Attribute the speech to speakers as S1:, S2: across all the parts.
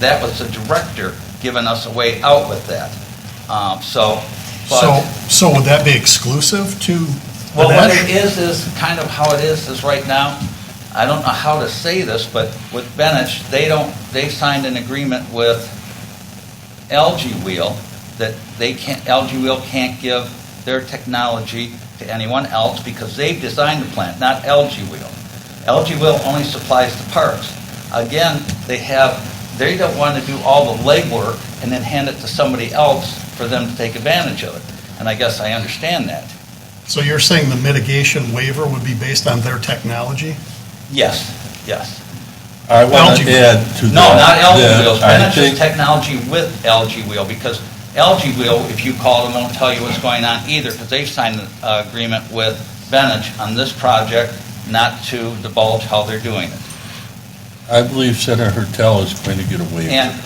S1: That was the director giving us a way out with that. Um, So,
S2: So,
S1: but,
S2: so would that be exclusive to the
S1: well, what
S2: Nash?
S1: it is, is kind of how it is, is right now, I don't know how to say this, but with Benich, they don't, they signed an agreement with LG Wheel that they can't, LG Wheel can't give their technology to anyone else because they've designed the plant, not LG Wheel. LG Wheel only supplies the parts. Again, they have, they don't want to do all the legwork and then hand it to somebody else for them to take advantage of it. And I guess I understand that.
S2: So you're saying the mitigation waiver would be based on their technology?
S1: Yes, yes.
S3: I want
S2: LG.
S3: to add to that.
S1: No, not LG
S3: that
S1: wheels,
S3: I
S1: Benet's
S3: think-
S1: technology with LG wheel, because LG wheel, if you call them, won't tell you what's going on either, because they've signed an uh, agreement with Benet's on this project, not to divulge how they're doing it.
S3: I believe Senator Hurtel is going to get a waiver.
S1: And,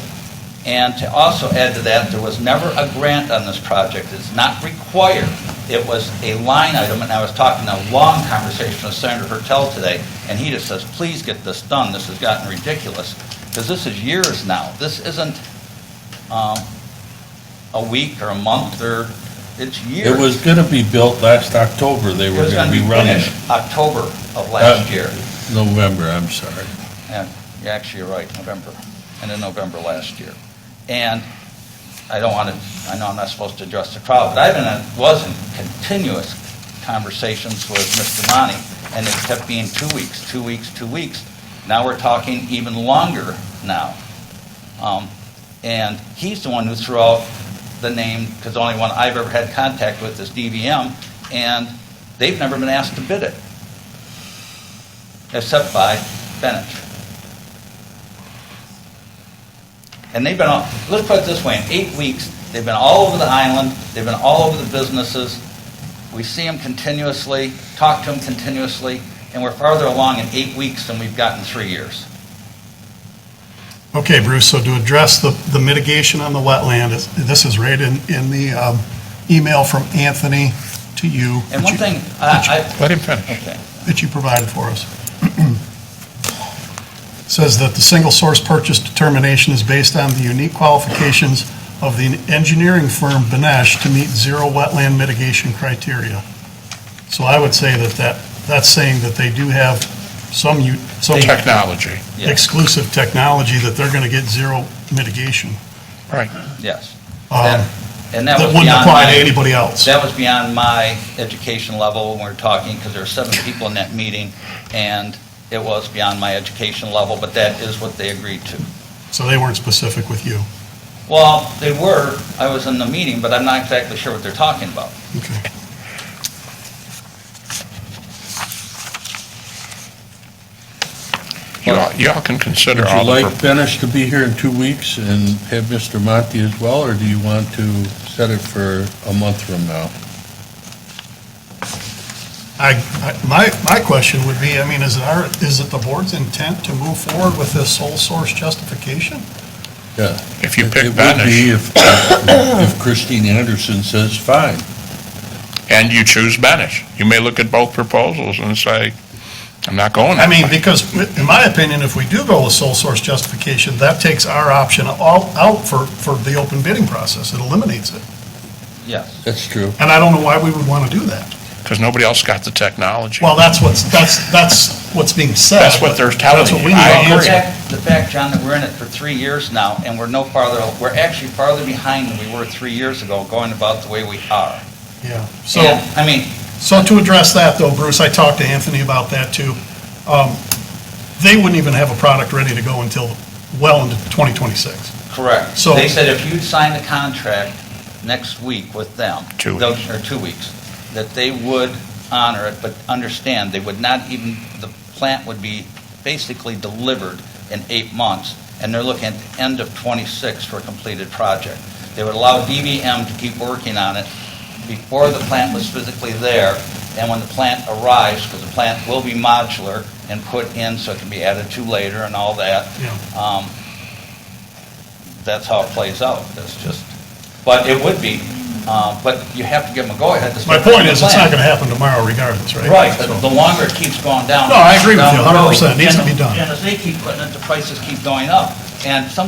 S1: and to also add to that, there was never a grant on this project. It's not required. It was a line item, and I was talking a long conversation with Senator Hertel today, and he just says, please get this done. This has gotten ridiculous, because this is years now. This isn't um, a week or a month or, it's years.
S3: It was going to be built last October, they
S1: It
S3: were
S1: was
S3: going
S1: gonna
S3: to be running
S1: finished
S3: it.
S1: October of last
S3: Uh,
S1: year.
S3: November, I'm sorry.
S1: Yeah, actually, you're right, November, and in November last year. And I don't want to, I know I'm not supposed to address the crowd, but I've been, in- was in continuous conversations with Mr. Monty, and it kept being two weeks, two weeks, two weeks. Now we're talking even longer now. Um, And he's the one who threw out the name, because the only one I've ever had contact with is DVM, and they've never been asked to bid it, except by Bennett. And they've been, all let's put it this way, in eight weeks, they've been all over the island, they've been all over the businesses. We see them continuously, talk to them continuously, and we're farther along in eight weeks than we've gotten three years.
S2: Okay, Bruce, so to address the, the mitigation on the wetland, is- this is right in, in the um, email from Anthony to you.
S1: And
S2: that
S1: one
S2: you-
S1: thing, I, I-
S2: Let him finish.
S1: okay.
S2: that you provided for us. Says that the single source purchase determination is based on the unique qualifications of the engineering firm Benesch to meet zero wetland mitigation criteria. So I would say that that, that's saying that they do have some, u- some
S4: Technology,
S1: Yeah.
S2: exclusive technology that they're going to get zero mitigation.
S4: right.
S1: yes.
S2: um,
S1: That- And that
S2: That
S1: was
S2: wouldn't
S1: beyond
S2: apply to
S1: my,
S2: anybody else.
S1: that was beyond my education level when we were talking, because there were seven people in that meeting, and it was beyond my education level, but that is what they agreed to.
S2: So they weren't specific with you.
S1: Well, they were, I was in the meeting, but I'm not exactly sure what they're talking about.
S2: Okay.
S4: You all, you all can consider
S3: Would you
S4: all the,
S3: like
S4: pro-
S3: Benish to be here in two weeks and have Mr. Monty as well, or do you want to set it for a month from now?
S2: I, I- my, my question would be, I mean, is it our, is it the board's intent to move forward with this sole source justification?
S3: Yeah.
S4: if you
S3: It-
S4: pick
S3: It would be
S4: Benish
S3: if, if Christine Anderson says fine.
S4: and you choose Benish, you may look at both proposals and say, I'm not going
S2: I
S4: that
S2: mean,
S4: way.
S2: because in my opinion, if we do go with sole source justification, that takes our option all out for, for the open bidding process. It eliminates it.
S1: Yes.
S3: That's true.
S2: And I don't know why we would want to do that.
S4: Because nobody else got the technology.
S2: Well, that's what's, that's, that's what's being said.
S4: That's what they're telling
S2: That's what we
S4: you.
S2: need
S4: I
S2: to
S1: The
S4: agree.
S2: answer.
S1: fact, the fact, John, that we're in it for three years now, and we're no farther, we're actually farther behind than we were three years ago, going about the way we are.
S2: Yeah. So.
S1: And, I mean,
S2: So to address that though, Bruce, I talked to Anthony about that too. Um, They wouldn't even have a product ready to go until well into 2026.
S1: correct.
S2: So-
S1: They said if you'd sign the contract next week with them.
S4: Two
S1: they'll- Or two weeks, that they would honor it, but understand, they would not even, the plant would be basically delivered in eight months, and they're looking at the end of '26 for a completed project. They would allow DVM to keep working on it before the plant was physically there, and when the plant arrives, because the plant will be modular and put in so it can be added to later and all that. Um, That's how it plays out, that's just, but it would be, uh, but you have to give them a go-ahead. to start
S2: My point
S1: the
S2: is, it's not
S1: plant.
S2: going to happen tomorrow regardless, right?
S1: Right, but the longer it keeps going down.
S2: No, I agree with
S1: down
S2: you
S1: the road,
S2: 100%. It needs to be
S1: and-
S2: done.
S1: And as they keep putting it, the prices keep going up. And some